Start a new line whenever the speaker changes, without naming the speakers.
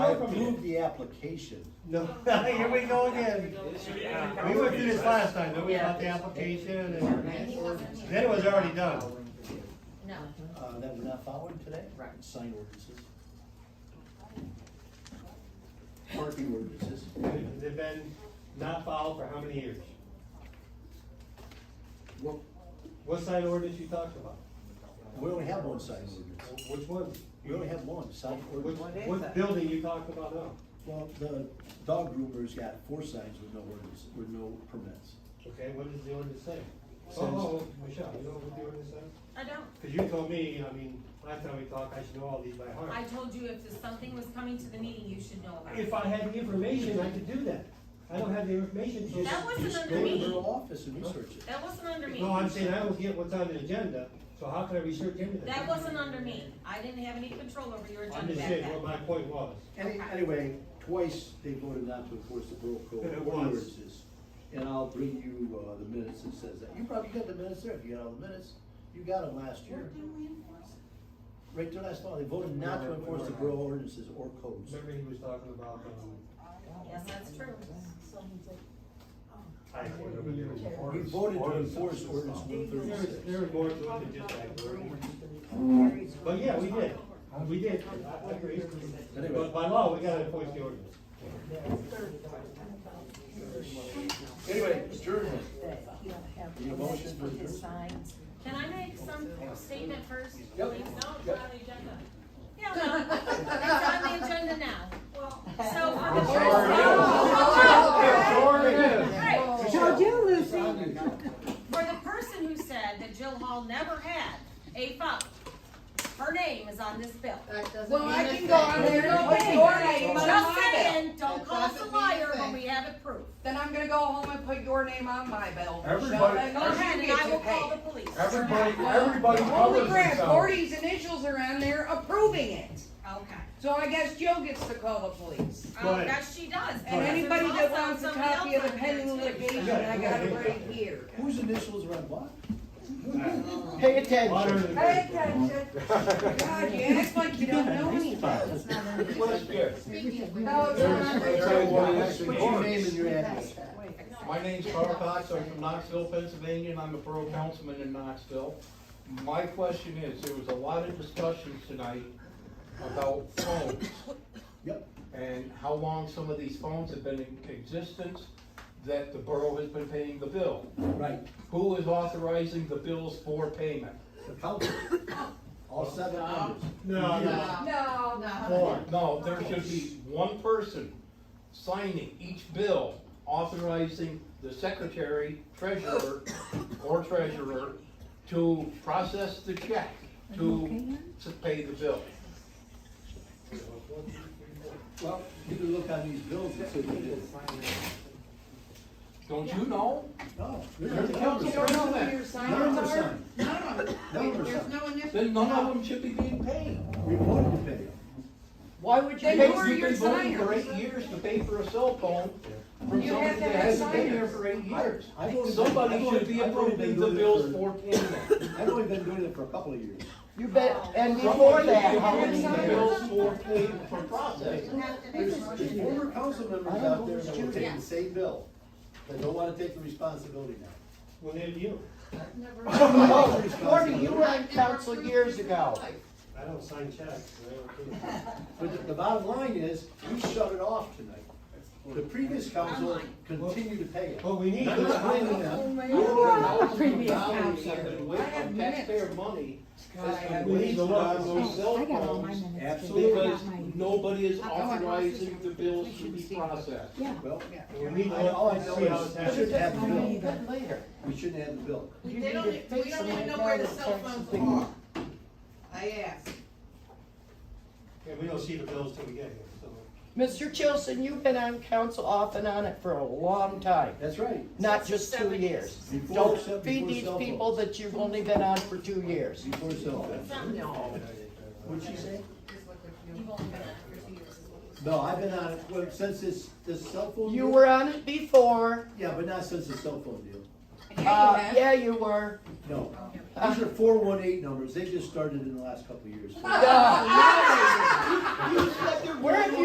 approve the application.
No, here we go again. We went through this last time, don't we, about the application and
He wasn't here.
then it was already done.
No,
Uh, that we're not following today?
Right.
Sign ordinances. Parking ordinances.
They've been not filed for how many years?
Well,
What side ordinance you talked about?
we only have one sign ordinance.
Which one?
We only have one sign
Which,
ordinance.
what building you talked about now?
Well, the dog groomer's got four signs with no ordinance, with no permits.
Okay, what does the ordinance say? Oh, oh, Michelle, you know what the ordinance says?
I don't,
Cause you told me, I mean, last time we talked, I should know all these by heart.
I told you if there's something was coming to the meeting, you should know about it.
If I had the information, I could do that. I don't have the information, so.
That wasn't
Just
under
go to
me.
her office and research it.
That wasn't under me.
No, I'm saying I don't get what's on the agenda, so how can I research anything?
That wasn't under me. I didn't have any control over your
I'm
agenda
just
back
saying what
then.
my point was.
Any, anyway, twice they voted not to enforce the borough code
It was.
ordinances. And I'll bring you, uh, the minutes that says that. You probably got the minutes there, if you got all the minutes. You got them last year. Right there last fall, they voted not to enforce the borough ordinances or codes.
Remember he was talking about, um,
Yes, that's true.
I can't remember the name of it.
We voted to enforce ordinance one
there was, there
thirty-six.
was more to it than just that word. But yeah, we did, we did, I- I agree. But by law, we gotta enforce the ordinance.
Anyway, adjournment.
Need a motion for adjournment?
Can I make some statement first? please?
Yep.
No, it's on the agenda. Yeah, well, it's on the agenda now. Well, so. for the- Oh, oh, right.
Showed you, Lucy.
For the person who said that Jill Hall never had a phone, her name is on this bill.
Well, I can go on there and put your name on
Just
my bill.
saying, don't call us a liar when we have it proof.
Then I'm gonna go home and put your name on my bill. Michelle,
Everybody-
that
Go
means
ahead
you
and I
get to
will call
pay.
the police.
Everybody, everybody
Holy
covers
crap,
themselves.
Gordy's initials are on there approving it.
Okay.
So I guess Jill gets to call the police.
Oh, yes, she does.
And
because
anybody
there's
that
also
wants a
somebody
copy of
else
the
on
pending
there, too.
litigation, I got it right here.
Whose initials are on what? Pay attention.
Pay attention. God, you act like you don't know anything.
What's here?
No, Oh, it's not.
Put your name and your address.
My name's Carl Cox, I'm from Knoxville, Pennsylvania, and I'm a borough councilman in Knoxville. My question is, there was a lot of discussion tonight about phones
Yep.
and how long some of these phones have been in existence that the borough has been paying the bill.
Right.
Who is authorizing the bills for payment?
The council. All seven members.
No, no,
No,
four.
No, there should be one person signing each bill authorizing the secretary, treasurer, or treasurer to process the check, to, to pay the bill.
Well, you can look on these bills and see what it is.
Don't you know?
No.
There's a council.
You don't know who your signers
Numbers
are?
on.
None of them.
Numbers
There's
on.
no initials.
Then none of them should be being paid.
We voted to pay.
Why would you
Then
pay,
who are
you've been
your
voting for
signers?
eight years to pay for a cell phone from
You
somebody
have to
that
have
hasn't been here
signers.
for eight years?
I voted- I
Somebody
voted-
should be
I voted
approving
to
the
do it
bills
for-
for payment.
I've only been doing it for a couple of years.
You bet, and
Before
before
that,
that,
how
how
many
many
bills for, for process?
There's former council members out there that will take
Yeah.
the same bill, that don't wanna take the responsibility now.
Well, then you,
Marty, you were on council years ago.
I don't sign checks, so I don't approve.
But the- the bottom line is, we shut it off tonight. The previous council continued to pay it.
But we need.
Not blaming
Oh
them.
You were on the
Dollars
previous
have been
council.
wasted
I have
on
minutes.
taxpayer money
God, I
has
have
been wasted on
Oh,
those
I got
cell
all my
phones
minutes. too.
absolutely,
I
because
got mine.
nobody is authorizing the bills to be processed.
Yeah.
Well,
We need
I- all I
to
know
see how it's
is, we shouldn't have
happening.
the
I don't
bill.
either.
Later.
We shouldn't have the bill.
You
They don't,
need to
e- we
fix
don't
them
even
like
know
that
where the
with
cell
tax
phones
thing.
are. I asked.
Yeah, we don't see the bills till we get here, so.
Mr. Chilson, you've been on council off and on it for a long time,
That's right.
not just two years.
Before-
Don't
except
feed
before
these
cell
people that you've only been on for two years.
Before cell phone. What'd she say?
You've only been on it for two years.
No, I've been on it, well, since this, this cell phone.
You
deal-
were on it before.
Yeah, but not since the cell phone deal.
Yeah, you
Uh,
have.
yeah, you were.
No. These are four one eight numbers. They just started in the last couple of years.
Uh,
You said there
Where have you